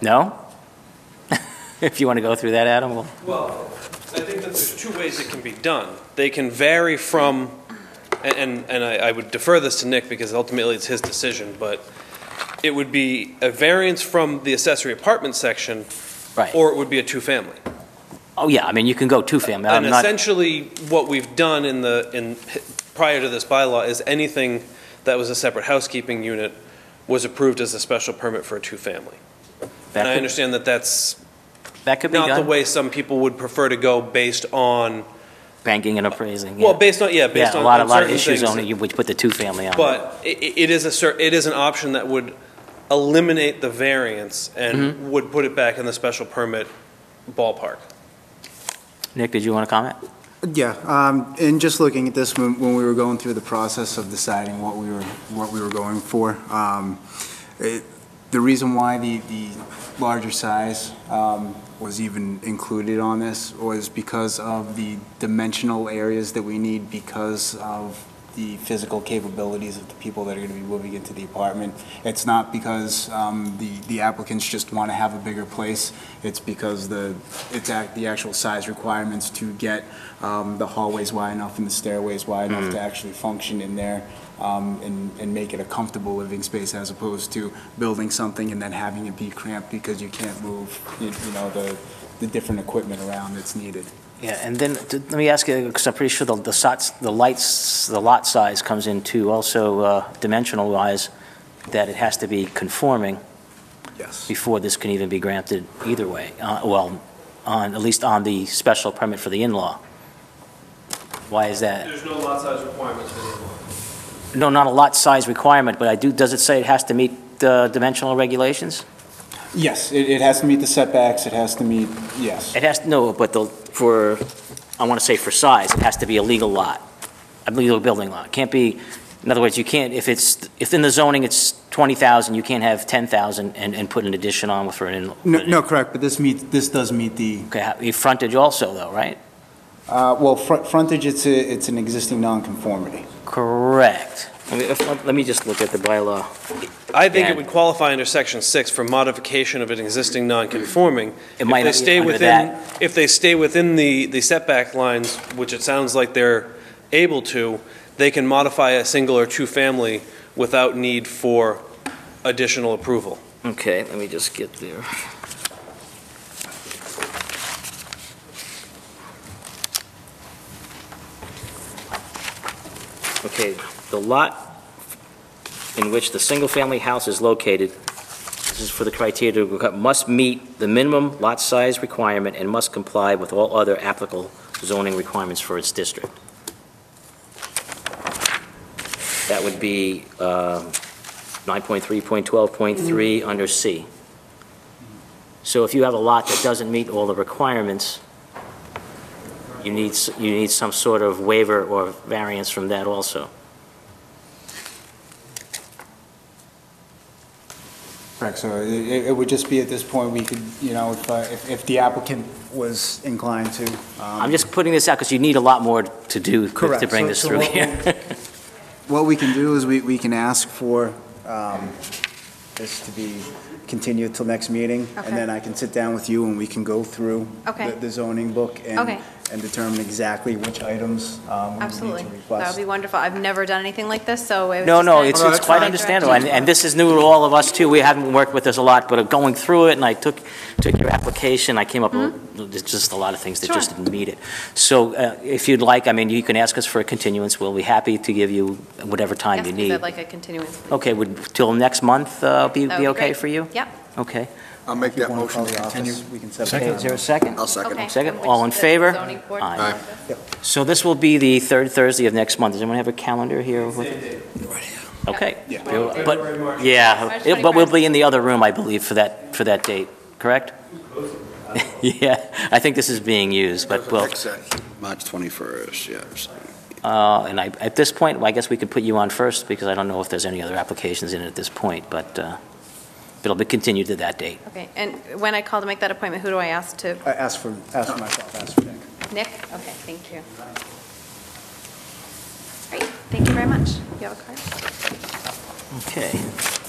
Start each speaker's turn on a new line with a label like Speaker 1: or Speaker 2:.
Speaker 1: No? If you want to go through that, Adam, we'll-
Speaker 2: Well, I think that there's two ways it can be done. They can vary from, and- and, and I I would defer this to Nick because ultimately it's his decision, but it would be a variance from the accessory apartment section,
Speaker 1: right.
Speaker 2: or it would be a two-family.
Speaker 1: Oh, yeah, I mean, you can go two-family.
Speaker 2: And
Speaker 1: I'm not,
Speaker 2: essentially, what we've done in the, in, prior to this bylaw is anything that was a separate housekeeping unit was approved as a special permit for a two-family. And I
Speaker 1: that could,
Speaker 2: understand that that's
Speaker 1: that could be
Speaker 2: not the
Speaker 1: done,
Speaker 2: way some people would prefer to go based on
Speaker 1: banking and appraising, yeah.
Speaker 2: Well, based on, yeah, based
Speaker 1: Yeah, a
Speaker 2: on
Speaker 1: lot, a
Speaker 2: on
Speaker 1: lot of
Speaker 2: certain
Speaker 1: issues
Speaker 2: things.
Speaker 1: on it, you would put the two-family on. it.
Speaker 2: But i- i- it is a cer, it is an option that would eliminate the variance
Speaker 1: Mm-hmm.
Speaker 2: and would put it back in the special permit ballpark.
Speaker 1: Nick, did you want to comment?
Speaker 3: Yeah, um, and just looking at this, when, when we were going through the process of deciding what we were, what we were going for, um, it, the reason why the, the larger size, um, was even included on this was because of the dimensional areas that we need because of the physical capabilities of the people that are gonna be moving into the apartment. It's not because, um, the, the applicants just wanna have a bigger place. It's because the, it's act, the actual size requirements to get um, the hallways wide enough and the stairways wide enough to actually function in there um, and, and make it a comfortable living space as opposed to building something and then having it be cramped because you can't move, you you know, the, the different equipment around that's needed.
Speaker 1: Yeah, and then, t- let me ask you, because I'm pretty sure the, the sots, the lights, the lot size comes into also uh, dimensional-wise, that it has to be conforming
Speaker 3: Yes.
Speaker 1: before this can even be granted either way, uh, well, on, at least on the special permit for the in-law. Why is that?
Speaker 2: There's no lot size requirements anymore.
Speaker 1: No, not a lot size requirement, but I do, does it say it has to meet uh, dimensional regulations?
Speaker 3: Yes, it, it has to meet the setbacks, it has to meet, yes.
Speaker 1: It has, no, but the, for, I want to say for size, it has to be a legal lot, a legal building lot. Can't be, in other words, you can't, if it's, if in the zoning it's 20,000, you can't have 10,000 and, and put an addition on for an in.
Speaker 3: No, no, correct, but this meets, this does meet the
Speaker 1: Okay, how- your frontage also though, right?
Speaker 3: Uh, Well, fr- frontage, it's, a- it's an existing nonconformity.
Speaker 1: Correct. Let me, if- let me just look at the bylaw.
Speaker 2: I think
Speaker 1: Yeah.
Speaker 2: it would qualify under section six for modification of an existing non-conforming.
Speaker 1: It might not
Speaker 2: If they
Speaker 1: be
Speaker 2: stay
Speaker 1: under
Speaker 2: within, if they stay within the, the setback lines, which it sounds like they're able to, they can modify a single or two-family without need for additional approval.
Speaker 1: Okay, let me just get there. Okay, the lot in which the single-family house is located, this is for the criteria, to must meet the minimum lot size requirement and must comply with all other applicable zoning requirements for its district. That would be, um, 9.3.12.3 under C. So if you have a lot that doesn't meet all the requirements, you need, s- you need some sort of waiver or variance from that also.
Speaker 3: Correct, so i- i- it would just be at this point, we could, you know, if, uh, if- if the applicant was inclined to.
Speaker 1: I'm just putting this out because you need a lot more to do to bring this through here.
Speaker 3: What we can do is we, we can ask for um, this to be continued till next meeting,
Speaker 4: Okay.
Speaker 3: and then I can sit down with you and we can go through
Speaker 4: Okay.
Speaker 3: the- the zoning book and,
Speaker 4: Okay.
Speaker 3: and determine exactly which items um, we would need
Speaker 4: Absolutely.
Speaker 3: to
Speaker 4: That would
Speaker 3: request.
Speaker 4: be wonderful. I've never done anything like this, so it was
Speaker 1: No,
Speaker 4: just
Speaker 1: no,
Speaker 4: kinda
Speaker 1: it's,
Speaker 3: Oh, no,
Speaker 1: it's
Speaker 3: that's
Speaker 1: quite
Speaker 3: fine.
Speaker 1: understandable, and, and this is new to all of us too, we haven't worked with this a lot, but going through it, and I took, took your application, I came up, with there's just a lot of things that just
Speaker 4: Mm-hmm. Sure.
Speaker 1: didn't meet it. So, uh, if you'd like, I mean, you can ask us for a continuance, we'll be happy to give you whatever time
Speaker 4: Yes,
Speaker 1: you
Speaker 4: please,
Speaker 1: need.
Speaker 4: I'd like a continuance. please.
Speaker 1: Okay, would, till next month, uh, be, be
Speaker 4: That would be
Speaker 1: okay
Speaker 4: great.
Speaker 1: for you?
Speaker 4: Yep.
Speaker 1: Okay,
Speaker 5: I'll make
Speaker 3: You
Speaker 5: that
Speaker 3: wanna
Speaker 5: motion
Speaker 3: call
Speaker 5: to
Speaker 3: the
Speaker 5: continue.
Speaker 3: office? We can set
Speaker 1: okay,
Speaker 3: up
Speaker 1: is there a
Speaker 3: time.
Speaker 1: second?
Speaker 5: I'll second
Speaker 4: Okay.
Speaker 5: it.
Speaker 1: Second.
Speaker 4: Which
Speaker 1: All in
Speaker 4: the
Speaker 1: favor?
Speaker 4: zoning board
Speaker 1: Aye.
Speaker 4: does this?
Speaker 1: So this will be the third Thursday of next month, does anyone have a calendar here? with- Okay.
Speaker 3: Yeah.
Speaker 1: We'll- But, yeah,
Speaker 4: March
Speaker 1: it- but we'll be in the other room, I believe, for that, for that date, correct? Yeah, I think this is being used, but we'll,
Speaker 5: Exactly. March 21st, yes.
Speaker 1: uh, and I, at this point, I guess we could put you on first, because I don't know if there's any other applications in at this point, but uh, it'll be continued to that date.
Speaker 4: Okay, and when I call to make that appointment, who do I ask to?
Speaker 3: I Ask for, ask for myself, ask for Nick.
Speaker 4: Nick? Okay, thank you. Great, thank you very much. You have a card?
Speaker 1: Okay.